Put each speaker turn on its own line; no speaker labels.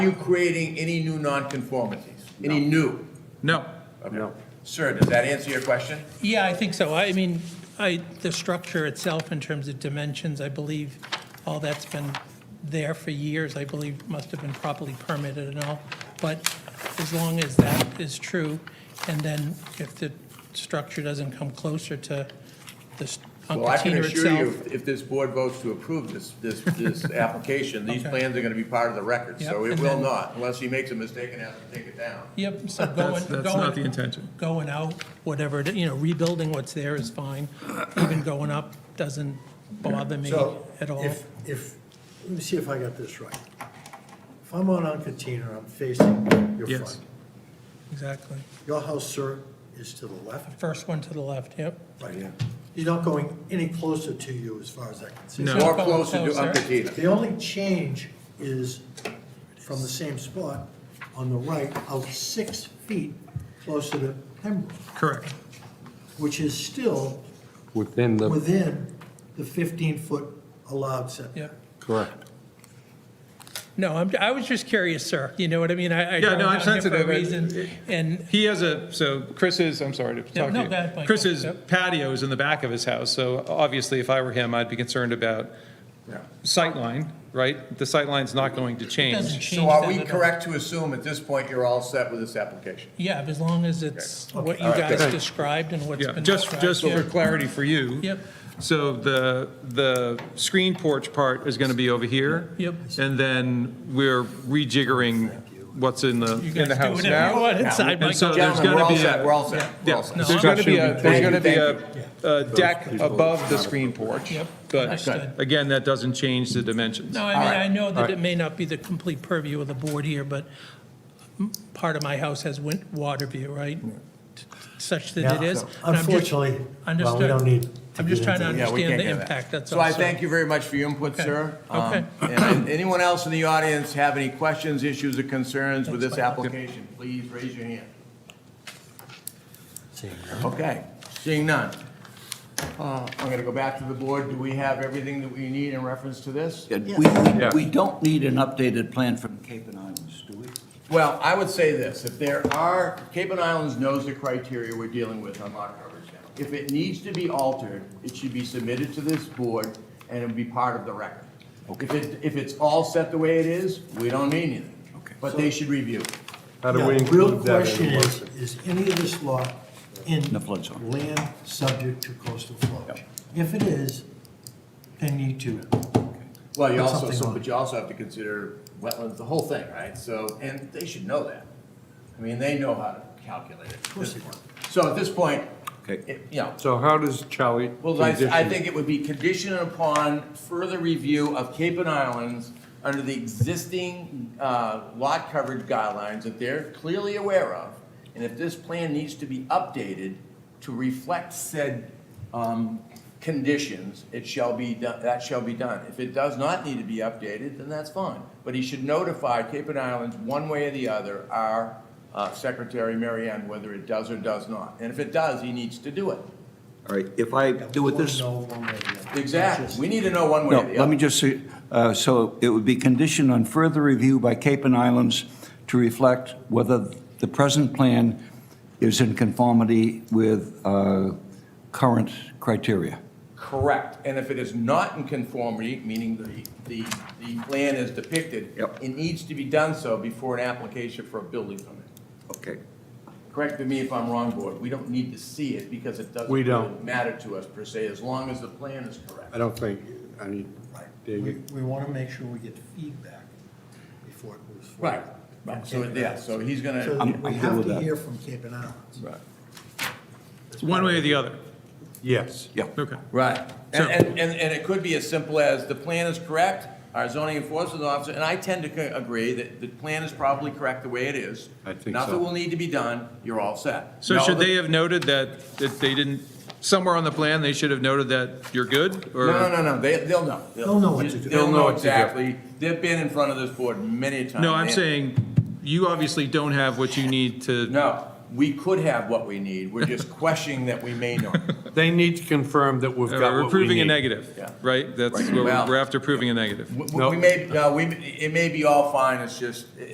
Are you creating any new nonconformities? Any new?
No.
No. Sir, does that answer your question?
Yeah, I think so. I mean, I, the structure itself in terms of dimensions, I believe all that's been there for years, I believe must have been properly permitted and all. But as long as that is true, and then if the structure doesn't come closer to the s-
Well, I can
container
assure you,
itself.
if- if this board votes to approve this, this, this application, these
Okay.
plans are gonna be part of the record, so
Yep,
it
and
will
then-
not, unless he makes a mistake and has to take it down.
Yep, so going,
That's, that's not the
going,
intention.
going out, whatever, it- you know, rebuilding what's there is fine. Even going up doesn't bother me
So
at all.
if, if, let me see if I got this right. If I'm on Uncutina, I'm facing your
Yes.
front.
Exactly.
Your house, sir, is to the left,
First one to the left, yep.
right? He's not going any closer to you as far as I can see.
No.
More
Going
closer to
closer.
Uncutina.
The only change is from the same spot on the right, out six feet closer to Pembroke,
Correct.
which is still
Within the,
within the 15-foot allowed setback.
Yep.
correct.
No, I'm, I was just curious, sir. You know what I mean? I, I
Yeah,
don't
no, I'm
have him
sensitive.
For a
I-
reason.
it-
And,
He has a, so Chris's, I'm sorry to
Yeah,
talk
no,
to
go ahead, Michael.
you. Chris's
Yep.
patio is in the back of his house, so obviously if I were him, I'd be concerned about sightline, right? The sightline's not going to
doesn't
change.
change
So are
that
we
at all.
correct to assume at this point you're all set with this application?
Yeah, as long as it's what you
All right,
guys
good.
described and what's
Yeah,
been
just,
described.
just
yeah.
for clarity for you.
Yep.
So the, the screen porch part is going to be over here.
Yep.
And then we're rejiggering what's in the,
You
in
guys
the
do
house
whatever you
now.
want inside,
And so
Michael.
there's
Gentlemen,
going
we're
to
all
be
set,
a.
we're all set, we're all
Yeah,
set.
there's going to be a, there's
Thank
going to be
you,
a a deck above the screen porch.
Yep,
But
understood.
again, that doesn't change the dimensions.
No, I
All
mean,
right,
I know that it may not be the complete purview of the board here, but m- part of my house has win, water view, right? Such that it
Yeah,
is.
so
And I'm just-
Unfortunately, well, we
Understood.
don't need to
I'm just
get
trying to
into that.
Yeah, we
understand
can't
the
get that.
impact, that's all.
So I
sir.
thank you very much for your input,
Okay.
sir. Um,
Okay.
And anyone else in the audience have any questions, issues, or concerns with this
Thanks, Michael.
application, please raise your hand.
Seeing
Okay, seeing none. Uh, I'm going to go back to the board. Do we have everything that we need in reference to this?
Yeah, We, we we don't need an updated plan from Cape and Islands, do we?
Well, I would say this, if there are, Cape and Islands knows the criteria we're dealing with on lot coverage now. If it needs to be altered, it should be submitted to this board and it'll be part of the record. If it, if it's all set the way it is, we don't need anything.
Okay.
But they should review. it.
How do we
Yeah, the
include that in the
Real
motion?
question is, is any of this lot in?
The flood zone.
Land subject to coastal flood? If it is, then you need to.
Well, you
Put
also,
something
so-
on.
but you also have to consider wetlands, the whole thing, right? So, and they should know that. I mean, they know how to calculate it. Of
course they do.
So at this point,
Okay.
it- you know,
So how does Charlie?
Well, I, I
condition-
think it would be conditioned upon further review of Cape and Islands under the existing, uh, lot coverage guidelines that they're clearly aware of. And if this plan needs to be updated to reflect said, um, conditions, it shall be, do- that shall be done. If it does not need to be updated, then that's fine. But he should notify Cape and Islands, one way or the other, our, uh, Secretary Mary Ann, whether it does or does not. And if it does, he needs to do it.
All right, if I do it this, no,
No, one way or the other.
Exactly. We need to know one way or the other.
let me just, say, uh, so it would be conditioned on further review by Cape and Islands to reflect whether the present plan is in conformity with uh, current criteria.
Correct. And if it is not in conformity, meaning the, the, the plan is depicted,
Yep.
it needs to be done so before an application for a building permit.
Okay.
Correct me if I'm wrong, board. We don't need to see it because it doesn't
We
really
don't.
matter to us per se, as long as the plan is
I
correct.
don't think, I mean,
Right. We,
David,
we want to make sure we get feedback before it moves forward.
Right. Right. So, yeah, so he's gonna.
So
I'm-
we
I'm good
have
with
to
that.
hear from Cape and Islands.
Right.
It's One way or the other.
yes.
Yeah.
Okay.
Right.
So-
And, and, and and it could be as simple as the plan is correct, our zoning enforcement officer, and I tend to co- agree that the plan is probably correct the way it is.
I think so.
Nothing will need to be done, you're all set.
So
No,
should
the-
they have noted that, that they didn't, somewhere on the plan, they should have noted that you're good? or-
No, no, no, no, they, they'll know.
They'll know what to do.
They'll
They'll know
know
what to do.
exactly. They've been in front of this board many times.
No, I'm
They-
saying, you obviously don't have what you need to,
No, we could have what we need, we're just questioning that we may not.
They need to confirm that we've got
we're
what we
proving a
need.
negative,
Yeah.
right? That's
Right.
what we're
Well- uh,
we're after, proving a negative.
We- We we may, no, we, it may be all fine, it's just,